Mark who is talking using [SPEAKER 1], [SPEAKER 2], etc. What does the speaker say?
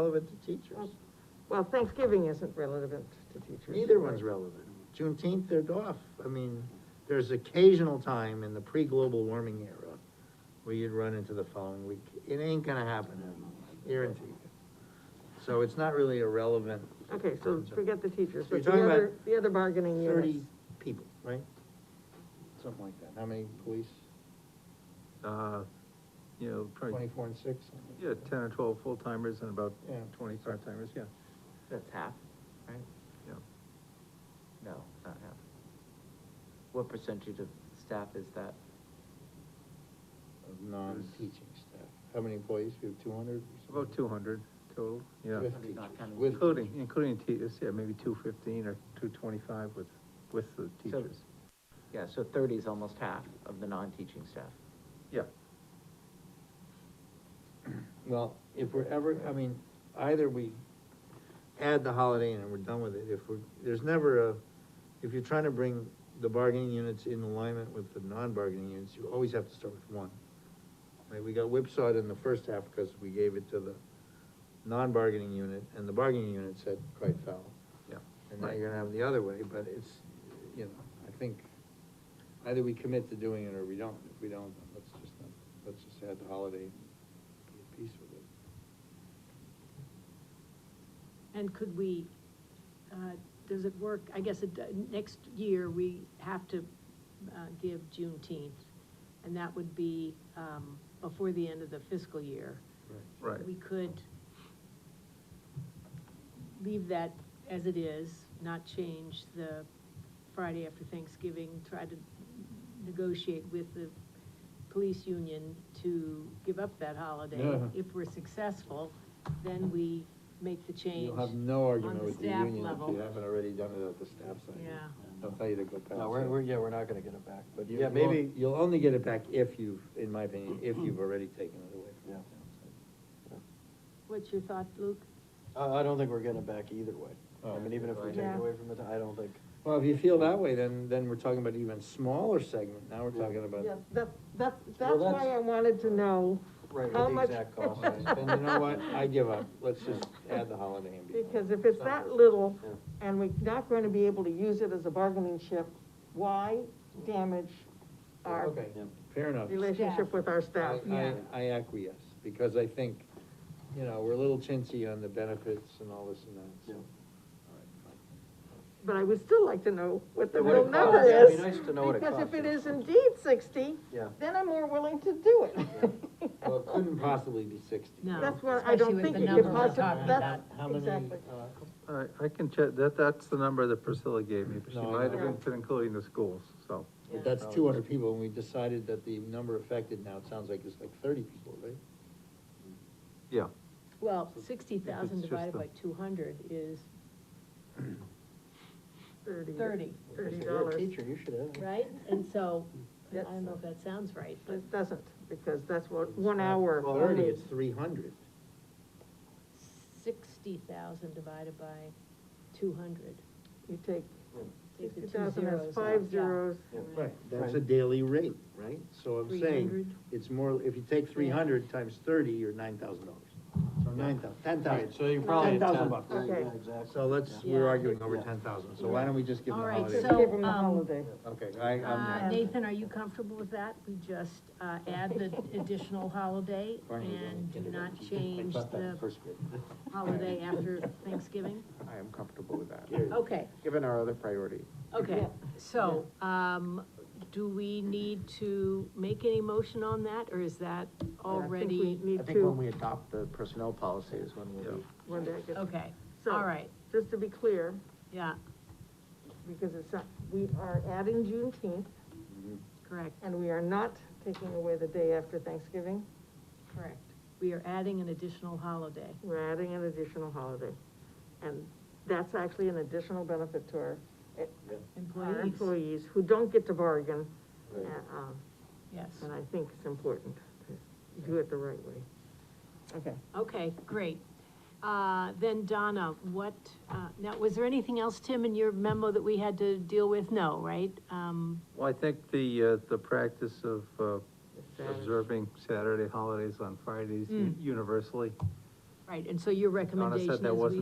[SPEAKER 1] relevant to teachers.
[SPEAKER 2] Well, Thanksgiving isn't relevant to teachers.
[SPEAKER 1] Neither one's relevant. Juneteenth, they're off. I mean, there's occasional time in the pre-global warming era where you'd run into the following week. It ain't gonna happen, I guarantee you. So it's not really a relevant
[SPEAKER 2] Okay, so forget the teachers,
[SPEAKER 1] So you're
[SPEAKER 2] but the
[SPEAKER 1] talking about
[SPEAKER 2] other, the other bargaining
[SPEAKER 1] thirty
[SPEAKER 2] units.
[SPEAKER 1] people, right? Something like that. How many police?
[SPEAKER 3] uh, you know, probably,
[SPEAKER 1] Twenty-four and six? something like
[SPEAKER 3] yeah,
[SPEAKER 1] that.
[SPEAKER 3] ten or twelve full-timers and about
[SPEAKER 1] Yeah.
[SPEAKER 3] twenty part-timers, yeah,
[SPEAKER 4] That's half, right?
[SPEAKER 3] yeah.
[SPEAKER 4] No, not half. What percentage of staff is that?
[SPEAKER 1] Of non-teaching staff. How many employees? We have two hundred?
[SPEAKER 3] About two hundred total, yeah.
[SPEAKER 1] With
[SPEAKER 4] Hundred, not counting
[SPEAKER 1] With-
[SPEAKER 3] Including, including teachers, yeah, maybe two fifteen or two twenty-five with, with the
[SPEAKER 4] So-
[SPEAKER 3] teachers,
[SPEAKER 4] Yeah, so thirty is almost half of the non-teaching staff.
[SPEAKER 3] yeah.
[SPEAKER 1] Well, if we're ever, I mean, either we add the holiday in and we're done with it, if we're, there's never a, if you're trying to bring the bargaining units in alignment with the non-bargaining units, you always have to start with one. Like, we got whipsawed in the first half because we gave it to the non-bargaining unit, and the bargaining unit said quite foul.
[SPEAKER 3] Yeah.
[SPEAKER 1] And now you're gonna have it the other way, but it's, you know, I think, either we commit to doing it or we don't. If we don't, then let's just, not- let's just add the holiday, and be at peace with it.
[SPEAKER 5] And could we, uh, does it work, I guess, it, next year, we have to, uh, give Juneteenth, and that would be, um, before the end of the fiscal year.
[SPEAKER 3] Right.
[SPEAKER 5] We could leave that as it is, not change the Friday after Thanksgiving, try to negotiate with the police union to give up that holiday.
[SPEAKER 1] Yeah.
[SPEAKER 5] If we're successful, then we make the change.
[SPEAKER 1] You'll have no argument
[SPEAKER 5] on the
[SPEAKER 1] with the
[SPEAKER 5] staff
[SPEAKER 1] union if
[SPEAKER 5] level.
[SPEAKER 1] you haven't already done it at the staff side.
[SPEAKER 5] Yeah.
[SPEAKER 1] They'll tell you to go past.
[SPEAKER 6] No, we're,
[SPEAKER 1] it.
[SPEAKER 6] we're, yeah, we're not gonna get it back, but
[SPEAKER 1] You-
[SPEAKER 6] yeah, maybe,
[SPEAKER 1] you'll- You'll only get it back if you've, in my opinion, if you've already taken it away from the
[SPEAKER 6] Yeah.
[SPEAKER 1] town side.
[SPEAKER 5] What's your thought, Luke?
[SPEAKER 6] I, I don't think we're getting it back either way. I
[SPEAKER 1] Oh.
[SPEAKER 6] mean, even if we take it
[SPEAKER 5] Yeah.
[SPEAKER 6] away from it, I don't think,
[SPEAKER 1] Well, if you feel that way, then, then we're talking about even smaller segment, now we're talking about.
[SPEAKER 2] Yeah, that, that, that's
[SPEAKER 6] Well,
[SPEAKER 2] why
[SPEAKER 6] that's-
[SPEAKER 2] I wanted to know
[SPEAKER 6] right,
[SPEAKER 2] how
[SPEAKER 6] with the
[SPEAKER 2] much.
[SPEAKER 6] exact cost.
[SPEAKER 1] And you know what, I give up, let's just add the holiday and be. done.
[SPEAKER 2] Because if it's that little,
[SPEAKER 6] Yeah.
[SPEAKER 2] and we're not gonna be able to use it as a bargaining chip, why damage our
[SPEAKER 1] Okay, fair enough.
[SPEAKER 2] relationship with our
[SPEAKER 1] I,
[SPEAKER 2] staff?
[SPEAKER 1] I- I acquiesce, because I think, you know, we're a little chintzy on the benefits and all this and that, so.
[SPEAKER 6] Yeah.
[SPEAKER 1] All right, fine.
[SPEAKER 2] But I would still like to know what the
[SPEAKER 6] What it
[SPEAKER 2] real number
[SPEAKER 6] costs, yeah, it'd
[SPEAKER 2] is.
[SPEAKER 6] be nice to know what it
[SPEAKER 2] Because if
[SPEAKER 6] costs.
[SPEAKER 2] it is indeed sixty,
[SPEAKER 6] Yeah.
[SPEAKER 2] then I'm more willing to do it.
[SPEAKER 1] Well, it couldn't possibly be sixty.
[SPEAKER 5] No.
[SPEAKER 2] That's what I
[SPEAKER 7] Especially
[SPEAKER 2] don't
[SPEAKER 7] with
[SPEAKER 2] think
[SPEAKER 7] the
[SPEAKER 2] it
[SPEAKER 7] number
[SPEAKER 2] could
[SPEAKER 7] we're
[SPEAKER 2] possibly,
[SPEAKER 7] talking
[SPEAKER 2] that's,
[SPEAKER 1] How many,
[SPEAKER 2] exactly.
[SPEAKER 1] uh,
[SPEAKER 3] All right, I can check, that, that's the number that Priscilla gave me, but she
[SPEAKER 1] No, I
[SPEAKER 3] might
[SPEAKER 1] know.
[SPEAKER 3] have been- been including the schools, so.
[SPEAKER 1] But that's two hundred people, and we decided that the number affected now, it sounds like it's like thirty people, right?
[SPEAKER 3] Yeah,
[SPEAKER 5] Well, sixty thousand
[SPEAKER 3] It's just
[SPEAKER 5] divided
[SPEAKER 3] the-
[SPEAKER 5] by two hundred is
[SPEAKER 2] Thirty.
[SPEAKER 5] thirty,
[SPEAKER 2] Thirty
[SPEAKER 6] If you're a
[SPEAKER 2] dollars.
[SPEAKER 6] Teacher, you should have.
[SPEAKER 5] right? And so, I
[SPEAKER 2] That's-
[SPEAKER 5] don't know if that sounds right, but,
[SPEAKER 2] It doesn't, because that's what, one hour.
[SPEAKER 1] Well, Thirty, it's three hundred.
[SPEAKER 5] sixty thousand divided by two hundred.
[SPEAKER 2] You take
[SPEAKER 5] Take the
[SPEAKER 2] sixty
[SPEAKER 5] two
[SPEAKER 2] thousand, that's
[SPEAKER 5] zeros
[SPEAKER 2] five
[SPEAKER 5] off, yeah.
[SPEAKER 2] zeros.
[SPEAKER 1] Right, that's a daily rate, right? So I'm saying,
[SPEAKER 5] 300.
[SPEAKER 1] it's more, if you take three hundred times thirty, you're nine thousand dollars. So nine thou, ten thousand.
[SPEAKER 6] So you're
[SPEAKER 2] probably
[SPEAKER 6] probably.
[SPEAKER 2] at 10,000
[SPEAKER 1] bucks.
[SPEAKER 2] Okay. yeah,
[SPEAKER 1] So let's, we're
[SPEAKER 5] Yeah.
[SPEAKER 1] arguing over ten thousand, so why don't we just give them
[SPEAKER 5] All
[SPEAKER 1] a
[SPEAKER 5] right,
[SPEAKER 1] holiday?
[SPEAKER 5] so-
[SPEAKER 2] Give them the
[SPEAKER 5] um,
[SPEAKER 2] holiday.
[SPEAKER 1] Okay, I,
[SPEAKER 5] Uh,
[SPEAKER 1] I'm,
[SPEAKER 5] Nathan, are you comfortable with that? We just, uh, add the additional holiday
[SPEAKER 6] Barney, you're
[SPEAKER 5] and do
[SPEAKER 6] gonna get it
[SPEAKER 5] not
[SPEAKER 6] empty.
[SPEAKER 5] change the holiday after Thanksgiving?
[SPEAKER 4] I am comfortable with that,
[SPEAKER 5] Okay,
[SPEAKER 4] given our other priority.
[SPEAKER 5] okay, so, um, do we need to make any motion on that, or is that
[SPEAKER 2] I think
[SPEAKER 5] already?
[SPEAKER 2] we need to,
[SPEAKER 4] we adopt the personnel policy is when
[SPEAKER 3] we'll be-
[SPEAKER 2] one day, I guess.
[SPEAKER 5] Okay,
[SPEAKER 2] So-
[SPEAKER 5] all right,
[SPEAKER 2] just to be clear,
[SPEAKER 5] yeah,
[SPEAKER 2] because it's not, we are adding Juneteenth,
[SPEAKER 5] correct,
[SPEAKER 2] and we are not taking away the day after Thanksgiving,
[SPEAKER 5] correct. We are adding an additional holiday.
[SPEAKER 2] we're adding an additional holiday. And that's actually an additional benefit to our, eh, our
[SPEAKER 5] Employees,
[SPEAKER 2] employees who don't get to bargain.
[SPEAKER 1] Right.
[SPEAKER 2] eh, um,
[SPEAKER 5] yes.
[SPEAKER 2] And I think it's important to do it the right way. Okay.
[SPEAKER 5] Okay, great. Uh, Then Donna, what, uh, now, was there anything else, Tim, in your memo that we had to deal with? No, right? Um,
[SPEAKER 3] Well, I think the, uh, the practice of, uh,
[SPEAKER 2] Saturday.
[SPEAKER 3] observing Saturday holidays on Fridays u- universally
[SPEAKER 5] Right, and so your recommendation is we.
[SPEAKER 3] wasn't